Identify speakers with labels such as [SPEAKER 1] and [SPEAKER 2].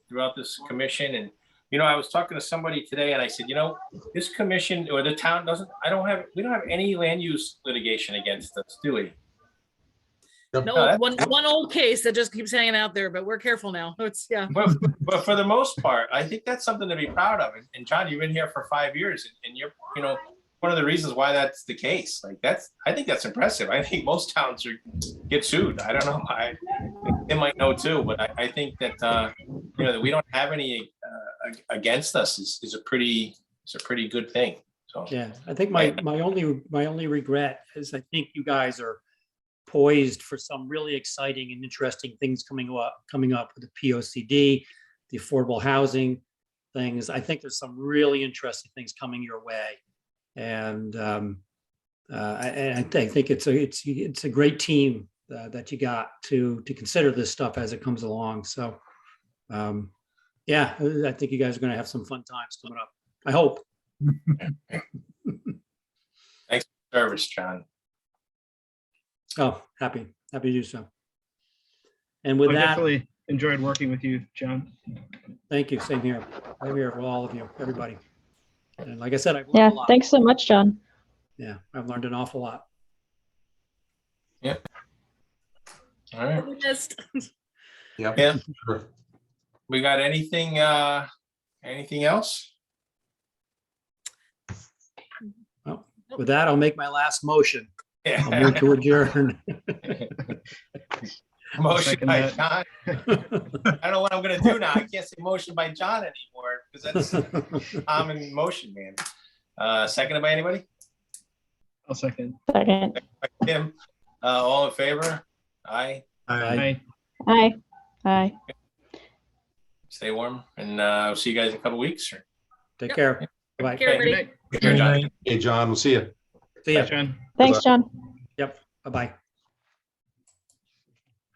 [SPEAKER 1] throughout this commission and, you know, I was talking to somebody today and I said, you know, this commission or the town doesn't, I don't have, we don't have any land use litigation against us, do we? No,
[SPEAKER 2] No,
[SPEAKER 1] that's-
[SPEAKER 2] one, one old case that just keeps hanging out there, but we're careful now. It's, yeah.
[SPEAKER 1] But, but for the most part, I think that's something to be proud of. And- And John, you've been here for five years and- and you're, you know, one of the reasons why that's the case, like that's, I think that's impressive. I think most towns are, get sued. I don't know. I, they might know too, but I, I think that, uh, you know, that we don't have any, uh, ag- against us is, is a pretty, is a pretty good thing. So,
[SPEAKER 3] Yeah, I think my, my only, my only regret is I think you guys are poised for some really exciting and interesting things coming up, coming up with the POCD, the affordable housing things. I think there's some really interesting things coming your way. And um, uh, I- and I think, think it's a, it's, it's a great team uh, that you got to, to consider this stuff as it comes along. So um, yeah, I I think you guys are going to have some fun times coming up. I hope.
[SPEAKER 1] service, John.
[SPEAKER 3] Oh, happy, happy to do so. And with
[SPEAKER 4] I
[SPEAKER 3] that,
[SPEAKER 4] definitely enjoyed working with you, John.
[SPEAKER 3] thank you. Same here. Same here for all of you, everybody. And like I said, I've
[SPEAKER 5] Yeah,
[SPEAKER 3] learned a lot.
[SPEAKER 5] thanks so much, John.
[SPEAKER 3] Yeah, I've learned an awful lot.
[SPEAKER 1] All right.
[SPEAKER 2] Just-
[SPEAKER 6] Yep.
[SPEAKER 1] Yeah.
[SPEAKER 6] sure.
[SPEAKER 1] We got anything, uh, anything else?
[SPEAKER 3] With that, I'll make my last motion. I'll move
[SPEAKER 1] Yeah.
[SPEAKER 3] to adjourn.
[SPEAKER 1] Motion
[SPEAKER 4] Second
[SPEAKER 1] by
[SPEAKER 4] that.
[SPEAKER 1] John. I don't know what I'm gonna do now. I can't say motion by John anymore because that's common motion, man. Uh, seconded by anybody?
[SPEAKER 4] I'll second.
[SPEAKER 5] Second.
[SPEAKER 1] By Tim, uh, all in favor? Aye,
[SPEAKER 3] Aye.
[SPEAKER 4] Bye.
[SPEAKER 5] Aye. Aye.
[SPEAKER 1] stay warm and, uh, I'll see you guys in a couple weeks or.
[SPEAKER 3] Take care. Bye.
[SPEAKER 2] Care, everybody.
[SPEAKER 4] Good night.
[SPEAKER 1] Here, John.
[SPEAKER 6] Hey, John, we'll see you.
[SPEAKER 3] See
[SPEAKER 4] Bye,
[SPEAKER 3] ya.
[SPEAKER 4] John.
[SPEAKER 5] Thanks, John.
[SPEAKER 3] Bye-bye.